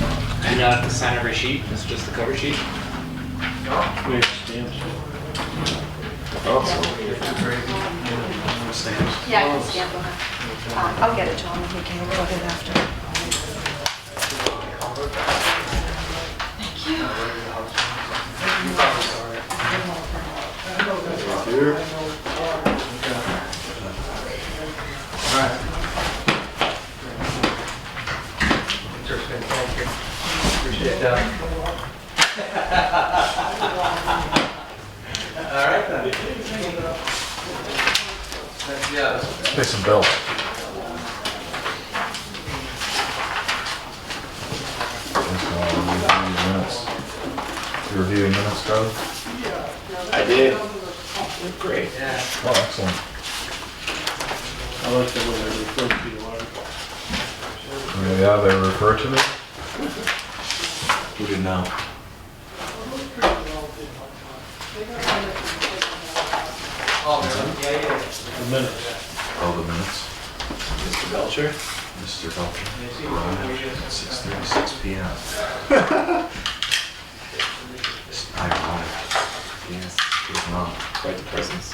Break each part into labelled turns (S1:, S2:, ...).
S1: not have to sign every sheet, it's just the cover sheet.
S2: We have stamps. Stamps.
S3: Yeah, I can stamp them. I'll get it to him, he can a little bit after.
S4: Interesting, thank you. Appreciate that. All right then. Thank you, guys.
S5: Pay some bills. Reviewing minutes, Doug?
S6: I did. Great.
S4: Yeah.
S5: Oh, excellent.
S2: I like the way they refer to you, Laura.
S5: Yeah, they refer to it.
S6: We do now.
S4: Oh, man. yeah, yeah.
S2: the minutes.
S6: All Oh, the minutes. Mr. Belcher? Mr. Belcher. Arrived Six thirty, six P M. I arrived. Yes. It was not.
S1: Quite the presence.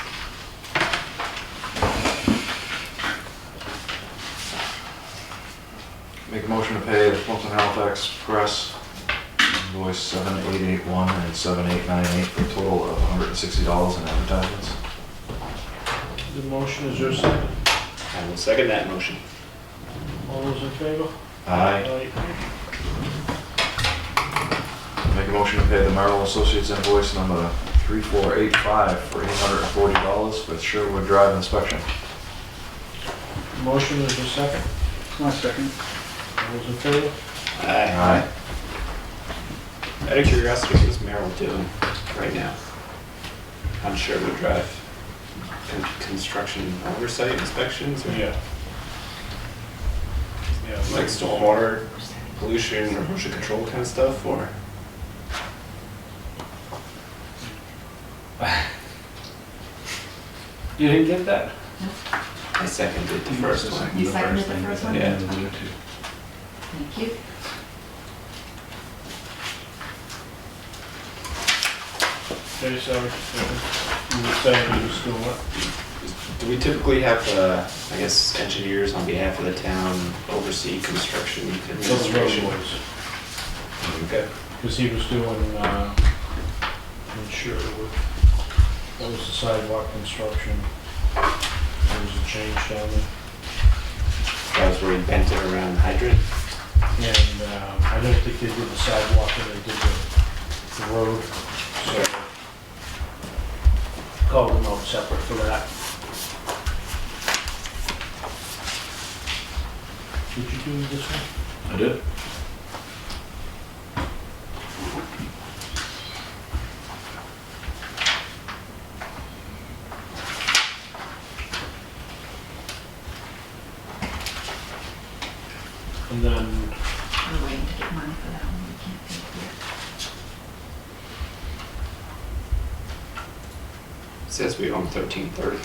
S6: Make a motion to pay the Fulton Halifax Press invoice seven eight eight one and seven eight nine eight for a total of hundred and sixty dollars in advertisements.
S2: The motion is your second.
S1: I will second that motion.
S2: All those in favor?
S6: Aye.
S2: Aye.
S6: Make a motion to pay the Merrill Associates invoice number three four eight five for eight hundred and forty dollars for Sherwood Drive inspection.
S2: Motion is your second.
S7: My second.
S2: All those in favor?
S1: Aye.
S6: Aye.
S1: Out of curiosity, what is Merrill doing right now? On Sherwood Drive? Con- Construction oversight inspections or
S2: Yeah. Yeah,
S1: like stormwater pollution or erosion control kind of stuff or?
S2: You didn't get that?
S1: I seconded the first one.
S3: You seconded the first one?
S1: Yeah.
S3: Thank you.
S2: Okay, sorry. You were saying you were still what?
S1: Do we typically have, uh, I guess, engineers on behalf of the town oversee construction
S2: Those
S1: administration?
S2: roadways.
S1: Okay.
S2: Because he was doing, uh, in Sherwood, that was the sidewalk construction. There was a change down there.
S1: That was where he bent it around the hydrant?
S2: And, uh, I don't think they did the sidewalk and they did the, the road, so. Called them out separate for that. Did you do this one?
S6: I did.
S2: And then
S3: We're waiting to get money for that one, we can't do it yet.
S1: Says we own thirteen thirty.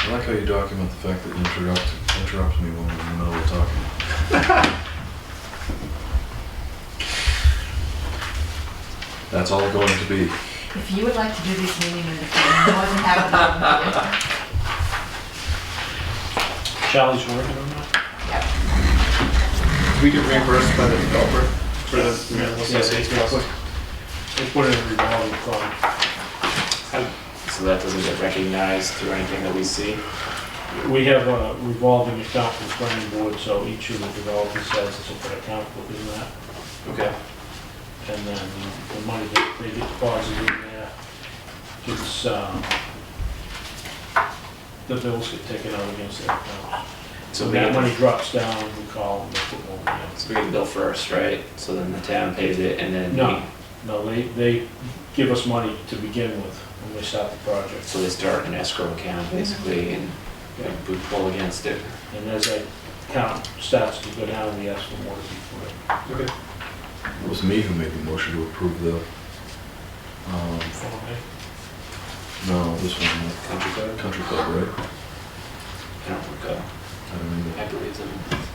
S6: I like how you document the fact that you interrupt, interrupt me when we're in the middle of talking. That's all going to be.
S3: If you would like to do this meeting in the future, more than happy to.
S2: Charlie's working on that.
S3: Yep.
S1: We get reimbursed by the developer for the
S2: Yeah,
S1: Merrill
S2: yeah, yeah. They put it in revolving fund.
S1: So that doesn't get recognized through anything that we see?
S2: We have a revolving account for the planning board, so each of the developers has a separate account within that.
S1: Okay.
S2: And then the money that they get deposited in there gets, um, the bills get taken out against that account.
S1: So
S2: So
S1: we
S2: that
S1: get,
S2: money drops down, we call them, they put more money
S1: so we get the bill first, right? So then the town pays it and then we-
S2: in. No, no, they, they give us money to begin with when we start the project.
S1: So they start an escrow account basically and
S2: Yeah.
S1: and we pull against it.
S2: And as that account starts to go down, we ask for more to be put in.
S1: Okay.
S6: It was me who made the motion to approve the, um, no, this one,
S1: Country
S6: the
S1: code?
S6: country club, right?
S1: I don't recall.
S6: I don't remember.
S1: I believe them.